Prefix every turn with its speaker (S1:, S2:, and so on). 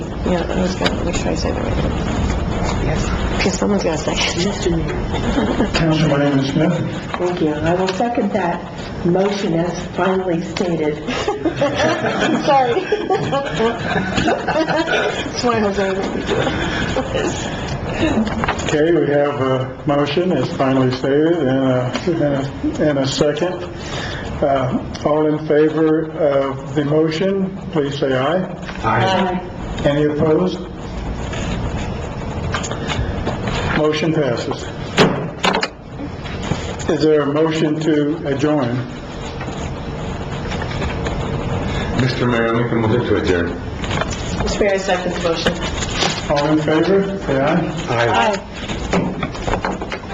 S1: Yeah, I was gonna make sure I say the right thing.
S2: Yes.
S1: Because someone's gonna second it.
S2: Mr. Mayor,
S3: Councilwoman Smith?
S2: thank you. I will second that motion as finally stated.
S1: Sorry. That's why I was like,
S3: Okay, we have a motion, as finally stated, and a, and a- and a second. Uh, all in favor of the motion, please say aye.
S1: Uh,
S2: Aye.
S3: Any opposed? Motion passes. Is there a motion to adjourn?
S4: Mr. Mayor, I make a motion to adjourn.
S1: Mr. Mayor, I second the motion.
S3: All in favor, say aye.
S4: Aye.
S1: Aye.